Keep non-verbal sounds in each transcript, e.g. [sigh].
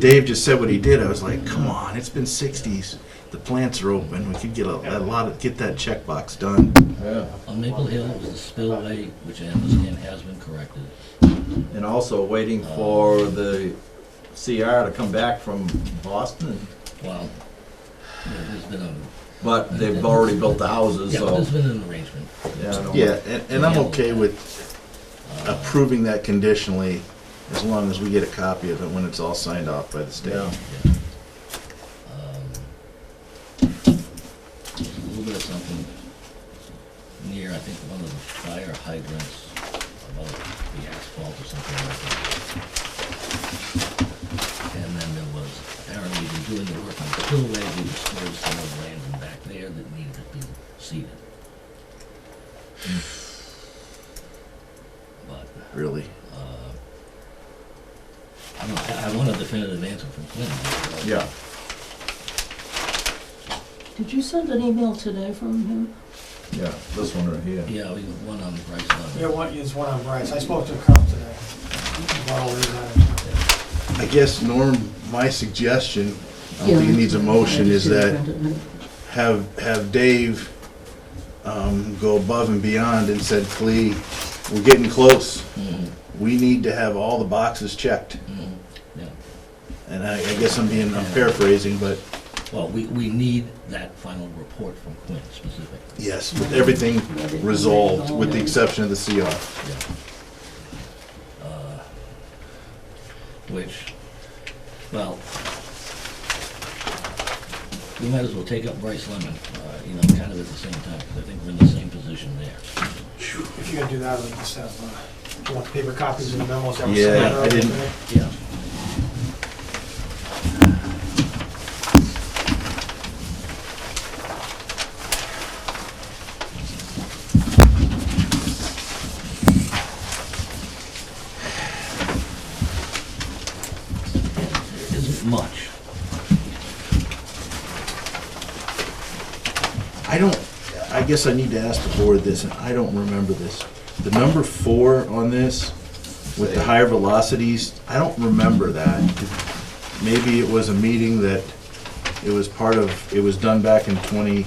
Dave just said what he did. I was like, come on, it's been 60s. The plants are open. We could get a, a lot of get that checkbox done. On Maple Hill it was the spillway, which I understand has been corrected. And also waiting for the CR to come back from Boston, Well, there- there's been a, but they've already built the houses, yeah, so. there's been an arrangement. yeah, I don't- Yeah, and, and I'm okay with approving that conditionally as long as we get a copy of it when it's all signed off by the state. Yeah. Yeah. Um, there's A little bit of something near, I think, one of the fire hydrants, about the asphalt or something like that. And then there was, apparently, we're doing the work on the spillway, we disturbed some of the land in back there that needed to be seeded. But Really? uh, I don't, I I want a definitive answer from Clint. Yeah, Did you send an email today from him? yeah, this one right here. Yeah, we have one on the price Yeah, level. one, it's one on Bryce. I spoke to Crump today. uh, About all these items. I guess, Norm, my suggestion, I don't think it needs a motion, is that have, have Dave um, go above and beyond and said, Clee, we're getting close. Mhm, We need to have all the boxes checked. mhm, Yeah, And I, I guess I'm being, I'm paraphrasing, but well, we, we need that final report from Clint specifically, yes, with everything resolved, with the exception of the CR. yeah. Uh, Which, well, we might as well take up Bryce Lemon, uh, you know, kind of at the same time, 'cause I think we're in the same position there. If you're gonna do that, we just have, uh, do you want the paper copies and the memos that were Yeah, sent I out? didn't- Yeah. There isn't much. I don't, I guess I need to ask the board this, and I don't remember this. The number four on this, with the higher velocities, I don't remember that. Maybe it was a meeting that, it was part of, it was done back in 20,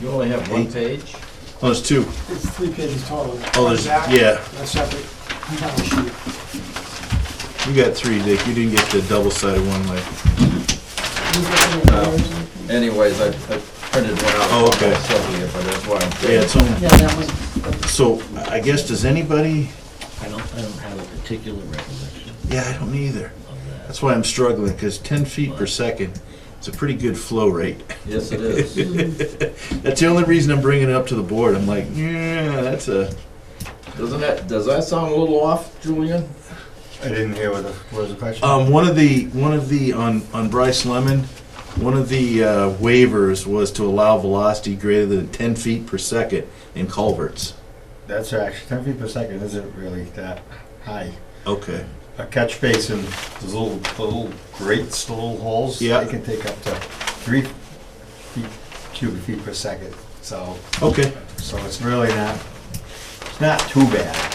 You only have one page? oh, there's two. It's three pages total. Oh, there's- Back, yeah. That's separate. Cover sheet. You got three, Dick, you didn't get the double-sided one, like, uh, Anyways, I I printed one out. Oh, okay. Sylvia, but that's why I'm. yeah, it's on. Yeah, that was, So, I guess, does anybody, I don't, I don't have a particular recollection yeah, I don't either. of that. That's why I'm struggling, because 10 feet per second, it's a pretty good flow rate. [laughs] Yes, it is. [laughs] That's the only reason I'm bringing it up to the board. I'm like, yeah, that's a, Doesn't that, does that sound a little off, Julian? I didn't hear what the, what was the question? Um, one of the, one of the, on, on Bryce Lemon, one of the uh, waivers was to allow velocity greater than ten feet per second in culverts. That's actually, ten feet per second isn't really that high. Okay. A catch basin, those little, the little grates, the little holes, Yeah. they can take up to three feet, cubic feet per second. So, Okay. so it's really not, it's not too bad.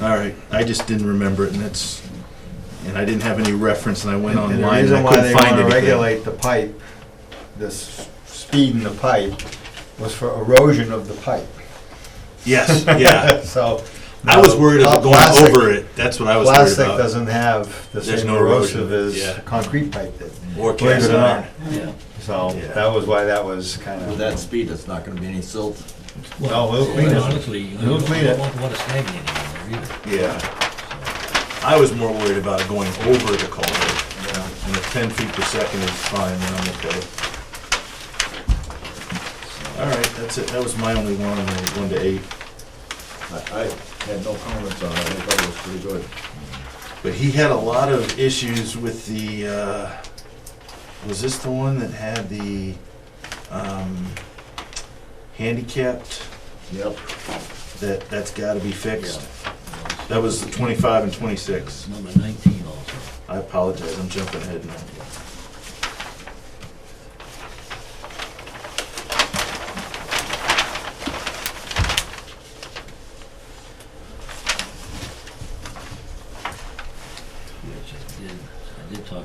All right. I just didn't remember it, and that's, and I didn't have any reference, and I went And the online and reason I why they couldn't find wanna anything. Regulate the pipe, this speed in the pipe, was for erosion of the pipe. Yes. Yeah. [laughs] So. I was worried now, about plastic- going over it. That's what I was worried Plastic about. doesn't have the There's same no erosion, erosive yeah. as concrete pipe did. Or Believe it cast or not. iron. Yeah, So Yeah. that was why that was kind With of. that speed, it's not gonna be any silt. No, we'll clean Quite it. honestly, you Who don't cleaned it? want water stagnating in there either. Yeah. I was more worried about going over the culvert. And if ten feet per second is fine, then I'm okay. All right, that's it, that was my only one, and then one to eight, I, I had no comments on it, I thought it was pretty good. but he had a lot of issues with the, uh, was this the one that had the, um, handicapped, Yep. that, that's gotta be fixed? Yeah. That was the twenty-five and twenty-six, Number nineteen also. I apologize, I'm jumping ahead now.